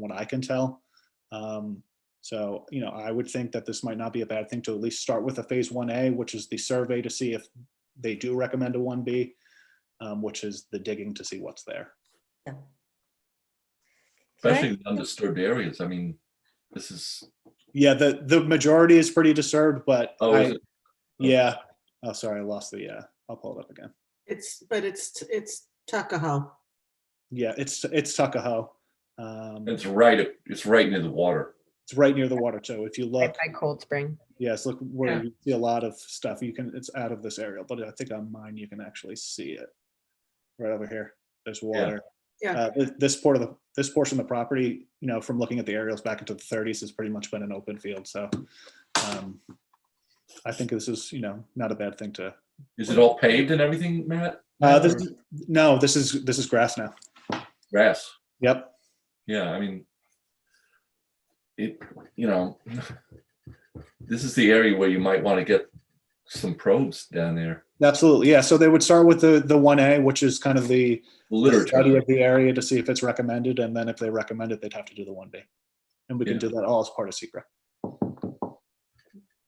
what I can tell. Um, So, you know, I would think that this might not be a bad thing to at least start with a phase one A, which is the survey to see if they do recommend a one B, um, which is the digging to see what's there. Can I- Especially the undisturbed areas. I mean, this is, Yeah, the, the majority is pretty disturbed, but oh, I- is it- yeah. Oh, sorry, I lost the, uh, I'll pull it up again. It's, but it's, it's Tuckahoe. Yeah, it's, it's Tuckahoe. Um, it's right, it's right near the water. It's right near the water. So if you look, Right by Cold Spring. yes, look where Yeah. you see a lot of stuff, you can, it's out of this area, but I think on mine, you can actually see it. Right over here, there's water. Yeah. Uh, thi- This part of the, this portion of the property, you know, from looking at the aerials back into the thirties, has pretty much been an open field, so. um, I think this is, you know, not a bad thing to, Is it all paved and everything, Matt? uh, this, is- no, this is, this is grass now. Grass. Yep. Yeah, I mean, it, you know, this is the area where you might want to get some probes down there. Absolutely, yeah. So they would start with the the one A, which is kind of the study Literature. of the area to see if it's recommended, and then if they recommend it, they'd have to do the one B. And we can Yeah. do that all as part of secret. The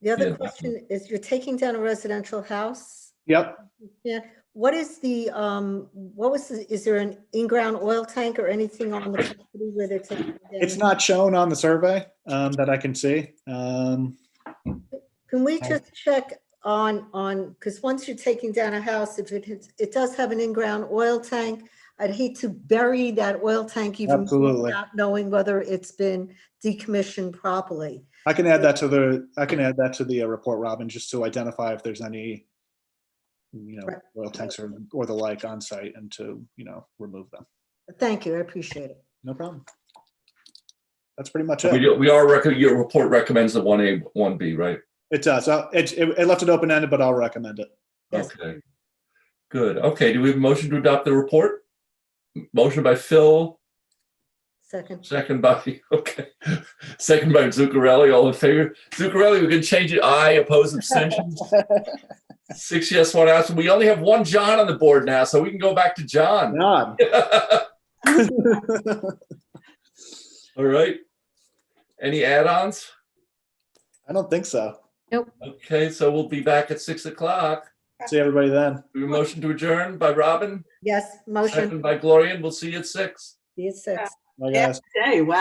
Yeah, other definitely. question is, you're taking down a residential house? Yep. Yeah, what is the, um, what was, the- is there an in-ground oil tank or anything on the property where they're taking? It's down? not shown on the survey um, that I can see. Um, Can we just check on, on, because once you're taking down a house, if it, has- it does have an in-ground oil tank, I'd hate to bury that oil tank even Absolutely. without knowing whether it's been decommissioned properly. I can add that to the I can add that to the uh, report, Robin, just to identify if there's any you know Right. oil tanks or or the like on site, and to you know remove them. Thank you, I appreciate it. No problem. That's pretty much We, it. do- we are, rec- your report recommends the one A, one B, right? It does. Uh, It it it left it open ended, but I'll recommend it. Yes. Okay. Good. Okay, do we have a motion to adopt the report? Motion by Phil, Second, second by, okay, second by Zuccarelli, all in favor. Zuccarelli, we can change it. Aye, oppose, abstentions. Six yes, one absent. We only have one John on the board now, so we can go back to John. God. All right. Any add-ons? I don't think so. Okay, so we'll be back at six o'clock. See everybody then. We have a motion to adjourn by Robin, yes, motion, second by Gloria, and we'll see you at six. be it six. Bye, Yeah. guys. Hey, wow.